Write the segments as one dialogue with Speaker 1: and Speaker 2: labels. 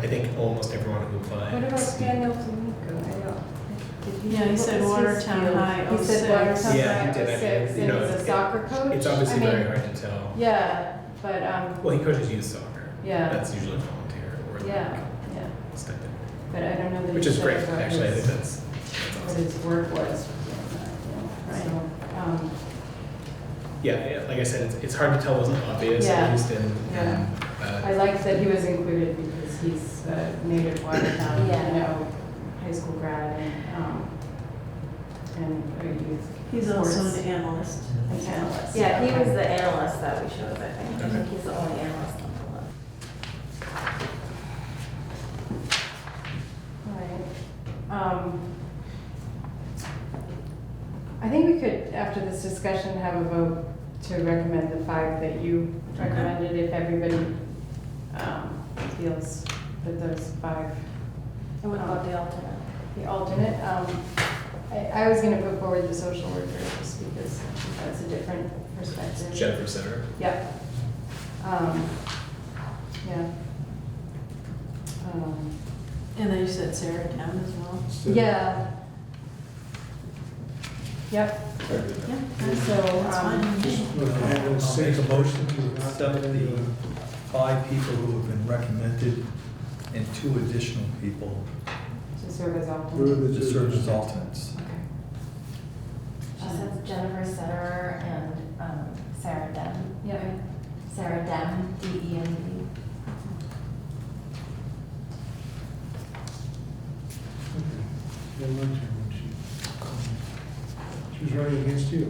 Speaker 1: I think almost everyone who
Speaker 2: What
Speaker 1: applied.
Speaker 2: about Daniel Flamingo? I don't- did
Speaker 3: Yeah, he
Speaker 2: what
Speaker 3: said
Speaker 2: was his
Speaker 3: Watertown
Speaker 2: field?
Speaker 3: High
Speaker 2: He said
Speaker 3: 06.
Speaker 2: Watertown
Speaker 1: Yeah, he
Speaker 2: High
Speaker 1: did. I mean,
Speaker 2: 06,
Speaker 1: you
Speaker 2: and
Speaker 1: know,
Speaker 2: he's a
Speaker 1: it-
Speaker 2: soccer coach?
Speaker 1: It's
Speaker 2: I
Speaker 1: obviously
Speaker 2: mean,
Speaker 1: very hard to tell.
Speaker 2: Yeah, but, um,
Speaker 1: Well, he coaches youth soccer.
Speaker 2: yeah,
Speaker 1: That's usually volunteer or
Speaker 2: yeah,
Speaker 1: like
Speaker 2: yeah,
Speaker 1: stipend,
Speaker 2: but I don't know that he
Speaker 1: which is
Speaker 2: said
Speaker 1: great.
Speaker 2: about
Speaker 1: Actually, I
Speaker 2: his-
Speaker 1: think that's, that's
Speaker 2: What
Speaker 1: awesome.
Speaker 2: his work was, yeah,
Speaker 3: Right.
Speaker 2: so, um,
Speaker 1: Yeah, yeah, like I said, it's, it's hard to tell. Wasn't obvious at
Speaker 2: Yeah.
Speaker 1: least in.
Speaker 2: Yeah.
Speaker 1: in, uh,
Speaker 2: I liked that he was included because he's a native Watertown, you
Speaker 3: Yeah.
Speaker 2: know, high school grad and, um, and a youth.
Speaker 3: He's also
Speaker 2: sports
Speaker 3: an analyst.
Speaker 2: analyst.
Speaker 4: Yeah, he was the analyst that we chose, I think. I
Speaker 1: Okay.
Speaker 4: think he's the only analyst on the list.
Speaker 2: Alright. Um, I think we could, after this discussion, have a vote to recommend the five that you recommended if everybody um, feels that those five,
Speaker 4: I would love the alternate.
Speaker 2: the alternate. um, I I was going to put forward the social worker just because that's a different perspective.
Speaker 1: uh, Jennifer Sitter.
Speaker 2: Yep. Um, Yeah. Um,
Speaker 3: And then you said Sarah Town as well.
Speaker 2: Yeah. Yep,
Speaker 3: Yeah.
Speaker 2: so,
Speaker 3: That's
Speaker 2: um,
Speaker 3: fine.
Speaker 5: I will say the motion to accept the five people who have been recommended and two additional people
Speaker 2: to serve as
Speaker 6: Where are
Speaker 2: alternate.
Speaker 6: the
Speaker 5: to serve as
Speaker 6: judges?
Speaker 5: alternates.
Speaker 2: Okay.
Speaker 4: She said Jennifer Sutter and um, Sarah Dem.
Speaker 2: Yeah,
Speaker 4: Sarah Dem, D E M
Speaker 6: Okay. Yeah, lunch, and she- She was running against you.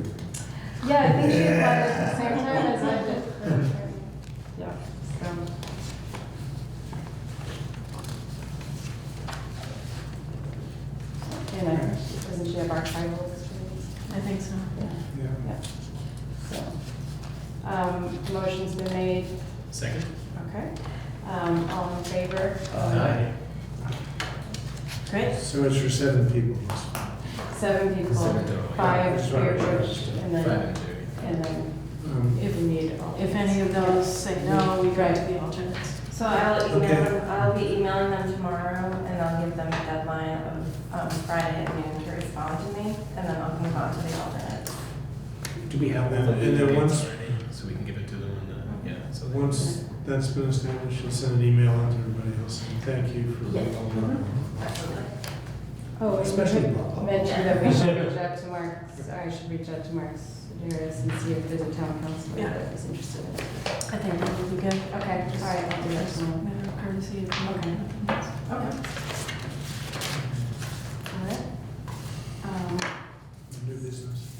Speaker 2: yeah, I think she applied at the same time as I did. Yeah, so. And I, doesn't she have archival experience?
Speaker 3: I think so.
Speaker 2: Yeah,
Speaker 6: Yeah.
Speaker 2: yeah. So, um, motion's been made,
Speaker 1: Second.
Speaker 2: okay. Um, all in favor?
Speaker 1: Aye.
Speaker 3: Great.
Speaker 6: So it's for seven people.
Speaker 2: Seven people,
Speaker 1: Seven total, oh, yeah.
Speaker 2: five peer
Speaker 6: Sorry, sorry.
Speaker 2: group, and
Speaker 1: Five
Speaker 2: then,
Speaker 1: and Judy.
Speaker 2: and then
Speaker 6: Um,
Speaker 2: if we need all.
Speaker 3: If any of those say no, we go to the alternates.
Speaker 4: E. So I'll
Speaker 6: Okay.
Speaker 4: email, them- I'll be emailing them tomorrow and I'll give them a deadline of um, Friday at noon to respond to me and then I'll move on to the alternate.
Speaker 1: Do we have all
Speaker 6: And-
Speaker 1: the
Speaker 6: and then
Speaker 1: names
Speaker 6: once-
Speaker 1: already? So we can give it to them and the, yeah, so. they-
Speaker 6: Once that's been established, she'll send an email out to everybody else. And Thank you for
Speaker 4: Yeah.
Speaker 6: all the work.
Speaker 2: Oh, and you
Speaker 6: Especially
Speaker 2: had
Speaker 6: Bob.
Speaker 2: mentioned that we should reach out to Mark, I should reach out to Mark Sedaris and see if there's a town council
Speaker 3: Yeah.
Speaker 2: that is interested in it.
Speaker 3: I think that would be good.
Speaker 2: Okay, all right, I'll do that tomorrow.
Speaker 3: Matter of courtesy.
Speaker 2: Okay.
Speaker 3: Okay.
Speaker 2: All right. Um,
Speaker 6: New business.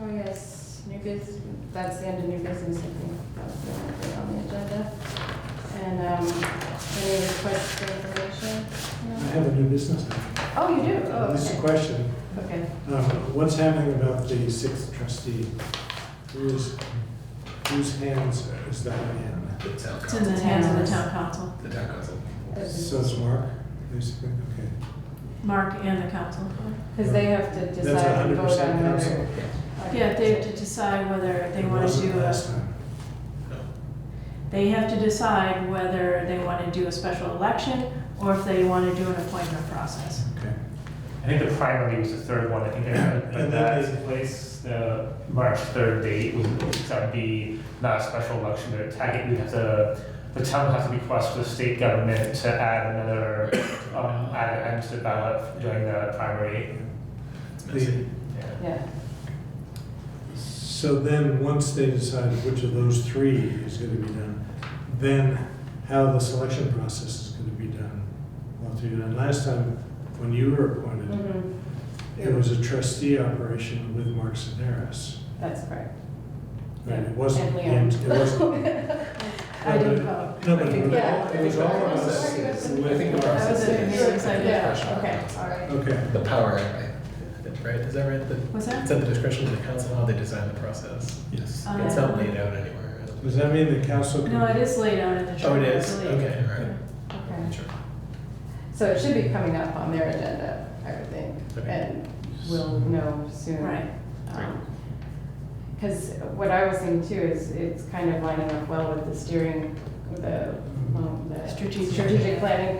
Speaker 2: Oh, yes, new business, that's the end of new business, I think. That's the only thing on the agenda. And, um, any requests for information?
Speaker 6: I
Speaker 2: No?
Speaker 6: have a new business. Uh,
Speaker 2: Oh, you do? Oh,
Speaker 6: This is a
Speaker 2: okay.
Speaker 6: question.
Speaker 2: Okay.
Speaker 6: Uh, What's happening about the sixth trustee? Whose, whose hands is that in?
Speaker 1: The town
Speaker 3: It's in the
Speaker 1: council.
Speaker 3: hands of the town council,
Speaker 1: The town council.
Speaker 6: So it's Mark, basically? Okay.
Speaker 3: Mark and the council.
Speaker 2: Because they have to
Speaker 6: That's
Speaker 2: decide and vote
Speaker 6: 100%
Speaker 2: on whether.
Speaker 6: council.
Speaker 3: Yeah, they have to decide whether they
Speaker 6: It
Speaker 3: want to uh,
Speaker 6: wasn't
Speaker 3: do a,
Speaker 6: Last time.
Speaker 1: No.
Speaker 3: they have to decide whether they want to do a special election or if they want to do an appointment process.
Speaker 6: Okay.
Speaker 7: I think the primary was the third one, I think that, but
Speaker 6: And then
Speaker 7: that's
Speaker 6: they-
Speaker 7: in place, the March third date, was- that would be not a special election, but tag it, we have to, the town would have to request the state government to add another, um, add an end to the ballot during the primary,
Speaker 1: It's
Speaker 6: The-
Speaker 1: messy.
Speaker 7: yeah.
Speaker 2: Yeah,
Speaker 6: So then, once they decide which of those three is going to be done, then how the selection process is going to be done. Well, to you, and last time, when you were
Speaker 3: Mm-hmm.
Speaker 6: appointed,
Speaker 2: Mhm.
Speaker 6: it was a trustee operation with Mark Sinaris.
Speaker 2: that's correct.
Speaker 6: Right, it wasn't,
Speaker 2: And
Speaker 6: the-
Speaker 2: Leon.
Speaker 6: it wasn't.
Speaker 2: I didn't vote.
Speaker 6: No, but it
Speaker 2: Yeah.
Speaker 6: was- it was all of us
Speaker 1: I think
Speaker 6: with,
Speaker 1: the process
Speaker 3: That was a-
Speaker 1: is.
Speaker 2: Yeah, okay, all right.
Speaker 6: okay.
Speaker 1: The power, right? Right, is that right? The-
Speaker 3: What's that?
Speaker 1: It's at the discretion of the council how they design the process.
Speaker 5: Yes.
Speaker 3: Uh,
Speaker 1: It's not laid out anywhere.
Speaker 6: Does that mean the council? can-
Speaker 3: No, it is laid out in the charter.
Speaker 1: Oh, it
Speaker 3: I
Speaker 1: is?
Speaker 3: believe.
Speaker 1: Okay, all right.
Speaker 2: Okay.
Speaker 1: Sure.
Speaker 2: So it should be coming up on their agenda, I would think,
Speaker 1: Okay.
Speaker 2: and we'll know soon.
Speaker 3: Right.
Speaker 2: Because what I was thinking too is it's kind of lining up well with the steering, the, um, the
Speaker 3: Strategic.
Speaker 2: strategic planning